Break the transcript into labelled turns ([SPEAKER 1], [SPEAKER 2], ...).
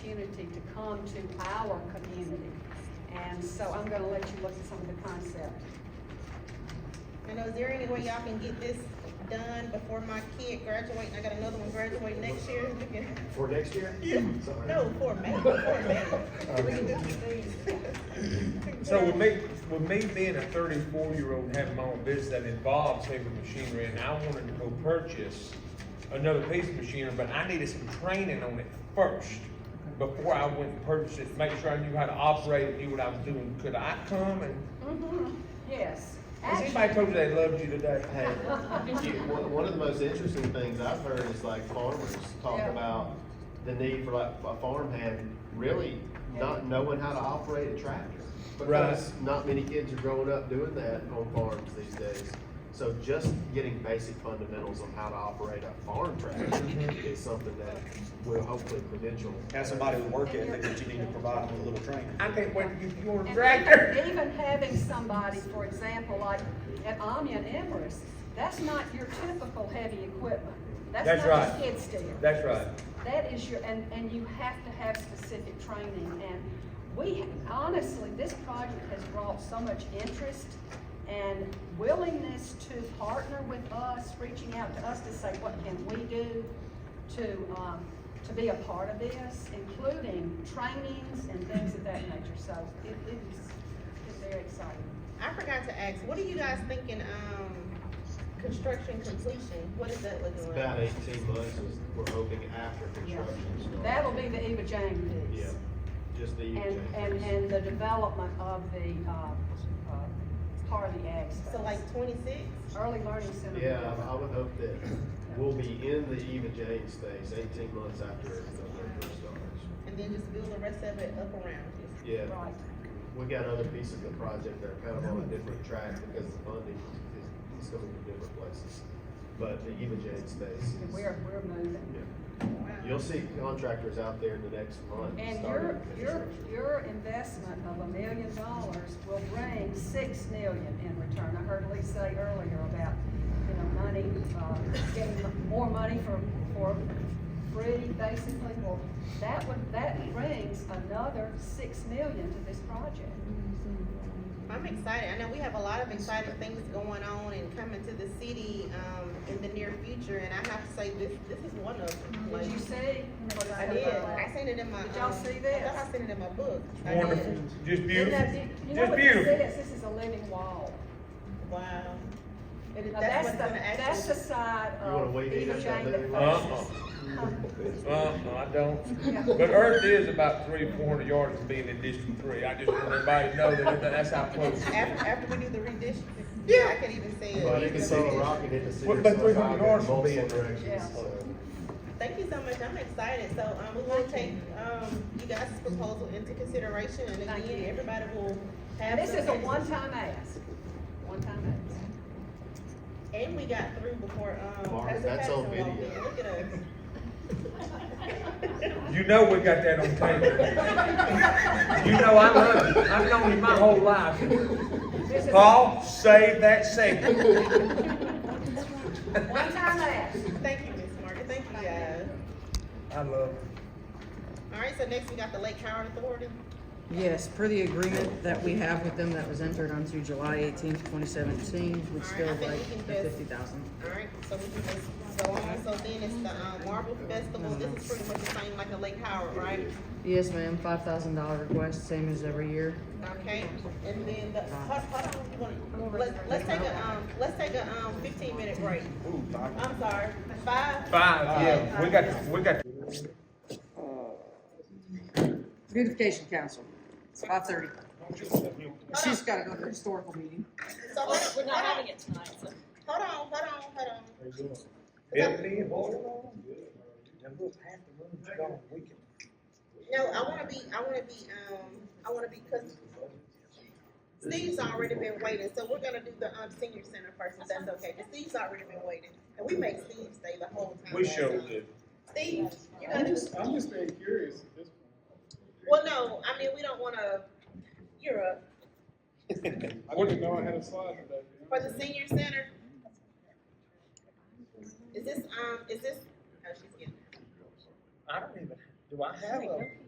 [SPEAKER 1] opportunity to come to our community. And so I'm gonna let you look at some of the concepts.
[SPEAKER 2] I know, is there any way y'all can get this done before my kid graduate, and I got another one graduate next year?
[SPEAKER 3] For next year? Something like that.
[SPEAKER 2] No, for May, for May. We can
[SPEAKER 3] Okay.
[SPEAKER 2] do things.
[SPEAKER 4] So with me, with me being a thirty-four year old and having my own business that involves heavy machinery and I wanted to go purchase another piece of machinery, but I needed some training on it first before I went and purchased it, to make sure I knew how to operate and knew what I was doing. Could I come and,
[SPEAKER 1] Yes.
[SPEAKER 4] has anybody told you they loved you today? Hey.
[SPEAKER 5] One, one of the most interesting things I've heard is like farmers talk
[SPEAKER 1] Yeah.
[SPEAKER 5] about the need for like a farmhand really not knowing how to operate a tractor.
[SPEAKER 4] Right.
[SPEAKER 5] Because not many kids are growing up doing that on farms these days. So just getting basic fundamentals on how to operate a farm tractor
[SPEAKER 1] Mm-hmm.
[SPEAKER 5] is something that will hopefully credential.
[SPEAKER 6] Have somebody with work ethic that you need to provide them with a little training.
[SPEAKER 4] I can't wait to get you on a
[SPEAKER 1] And
[SPEAKER 4] tractor.
[SPEAKER 1] even- Even having somebody, for example, like at Omni and Emirates, that's not your typical heavy equipment. That's
[SPEAKER 4] That's
[SPEAKER 1] not
[SPEAKER 4] right.
[SPEAKER 1] your skid steer.
[SPEAKER 4] That's right.
[SPEAKER 1] That is your, and, and you have to have specific training, and we, honestly, this project has brought so much interest and willingness to partner with us, reaching out to us to say, what can we do to, um, to be a part of this, including trainings and things of that nature, so it, it is, it's very exciting.
[SPEAKER 2] I forgot to ask, what are you guys thinking, um, construction completion, what is that
[SPEAKER 5] It's
[SPEAKER 2] looking
[SPEAKER 5] about
[SPEAKER 2] like?
[SPEAKER 5] eighteen months, is we're hoping after
[SPEAKER 1] Yeah,
[SPEAKER 5] construction starts.
[SPEAKER 1] That'll be the Eva Jane piece.
[SPEAKER 5] Yeah, just the.
[SPEAKER 1] And, and, and the development of the, uh, uh, part of the ag space.
[SPEAKER 2] So like twenty-six?
[SPEAKER 1] Early learning center.
[SPEAKER 5] Yeah, I- I would hope that we'll be in the Eva Jane space eighteen months after the merger starts.
[SPEAKER 2] And then just build the rest of it up around it.
[SPEAKER 5] Yeah,
[SPEAKER 1] Right,
[SPEAKER 5] we got other pieces of the project that are kind of on a different track because the funding is, is going to different places. But the Eva Jane space
[SPEAKER 1] And
[SPEAKER 5] is,
[SPEAKER 1] we're, we're moving.
[SPEAKER 5] yeah.
[SPEAKER 2] Wow.
[SPEAKER 5] You'll see contractors out there in the next month.
[SPEAKER 1] And
[SPEAKER 5] starting
[SPEAKER 1] your, your,
[SPEAKER 5] construction.
[SPEAKER 1] your investment of a million dollars will bring six million in return. I heard Lee say earlier about, you know, money, uh, getting more money for, for free, basically. Well, that would, that brings another six million to this project.
[SPEAKER 2] I'm excited. I know we have a lot of exciting things going on and coming to the city, um, in the near future, and I have to say, this, this is one of them.
[SPEAKER 1] Did you see? what
[SPEAKER 2] I did. I seen it in my.
[SPEAKER 1] Did y'all
[SPEAKER 2] um,
[SPEAKER 1] see
[SPEAKER 2] I
[SPEAKER 1] this?
[SPEAKER 2] thought I seen it in my book. I did.
[SPEAKER 4] Wonderful, just
[SPEAKER 1] And
[SPEAKER 4] beautiful,
[SPEAKER 1] that- You know
[SPEAKER 4] just
[SPEAKER 1] what this
[SPEAKER 4] beautiful.
[SPEAKER 1] is? This is a living wall.
[SPEAKER 2] Wow. It is,
[SPEAKER 1] Now,
[SPEAKER 2] that's
[SPEAKER 1] that's
[SPEAKER 2] what's
[SPEAKER 1] the,
[SPEAKER 2] gonna
[SPEAKER 1] that's the
[SPEAKER 2] actually.
[SPEAKER 1] side
[SPEAKER 5] You wanna
[SPEAKER 1] of
[SPEAKER 5] wait in
[SPEAKER 1] Eva
[SPEAKER 5] that
[SPEAKER 1] Jane that
[SPEAKER 5] living
[SPEAKER 4] Uh-uh,
[SPEAKER 1] faces. Huh?
[SPEAKER 4] uh-uh, I
[SPEAKER 1] Yeah.
[SPEAKER 4] don't. But Earth is about three, four hundred yards from being in District Three. I just want everybody to know that that's how close it is.
[SPEAKER 2] After, after we do the redistricting, I could even say it.
[SPEAKER 5] But it can sell a rocket into city.
[SPEAKER 4] What about 300 yards from
[SPEAKER 5] Multiple
[SPEAKER 4] being there?
[SPEAKER 1] Yeah.
[SPEAKER 5] directions, so.
[SPEAKER 2] Thank you so much. I'm excited. So, um, we will take, um, you guys' proposal into consideration and
[SPEAKER 1] Thank
[SPEAKER 2] again,
[SPEAKER 1] you.
[SPEAKER 2] everybody will have.
[SPEAKER 1] And this
[SPEAKER 2] some
[SPEAKER 1] is a
[SPEAKER 2] extra-
[SPEAKER 1] one-time ask, one-time ask.
[SPEAKER 2] And we got through before, um.
[SPEAKER 5] Mark,
[SPEAKER 2] Pastor
[SPEAKER 5] that's on
[SPEAKER 2] Patterson walked
[SPEAKER 5] video.
[SPEAKER 2] in. Look at us.
[SPEAKER 4] You know we got that on tape. You know I love him. I've known him my whole life.
[SPEAKER 1] This is a
[SPEAKER 4] Paul, save that segment.
[SPEAKER 1] One-time ask.
[SPEAKER 2] Thank you, Ms. Margaret. Thank you, guys.
[SPEAKER 4] I love him.
[SPEAKER 2] All right, so next we got the Lake Howard Authority.
[SPEAKER 7] Yes, per the agreement that we have with them that was entered onto July eighteenth, twenty seventeen,
[SPEAKER 2] Alright,
[SPEAKER 7] we'd still
[SPEAKER 2] I think
[SPEAKER 7] like
[SPEAKER 2] we can
[SPEAKER 7] the
[SPEAKER 2] just-
[SPEAKER 7] fifty thousand.
[SPEAKER 2] All right, so we can just go on. So then it's the, um, Marble Festival. This is pretty much the same like the Lake Howard, right?
[SPEAKER 7] Yes, ma'am, five thousand dollar request, same as every year.
[SPEAKER 2] Okay, and then the, hold, hold on, you wanna, let's, let's take a, um, let's take a, um, fifteen minute break.
[SPEAKER 6] Ooh, Doc.
[SPEAKER 2] I'm sorry, five?
[SPEAKER 4] Five, yeah, we got, we got.
[SPEAKER 7] Beautification Council, five thirty. She's gotta go to the historical meeting.
[SPEAKER 2] So hold on,
[SPEAKER 8] We're not
[SPEAKER 2] hold
[SPEAKER 8] having
[SPEAKER 2] on,
[SPEAKER 8] it tonight, so.
[SPEAKER 2] hold on, hold on, hold on.
[SPEAKER 4] Ebony, boy. That little half the room's gone. We can-
[SPEAKER 2] No, I wanna be, I wanna be, um, I wanna be, cause Steve's already been waiting, so we're gonna do the, um, senior center first, if that's okay, cause Steve's already been waiting. And we make Steve stay the whole time.
[SPEAKER 4] We sure did.
[SPEAKER 2] Steve, you
[SPEAKER 9] I'm
[SPEAKER 2] gotta,
[SPEAKER 9] just, I'm just being curious at this
[SPEAKER 2] well, no, I mean, we don't wanna, you're up,
[SPEAKER 9] point. I didn't know I had a slide today. you know?
[SPEAKER 2] for the senior center. Is this, um, is this, oh, she's getting,
[SPEAKER 4] I don't even, do I have a,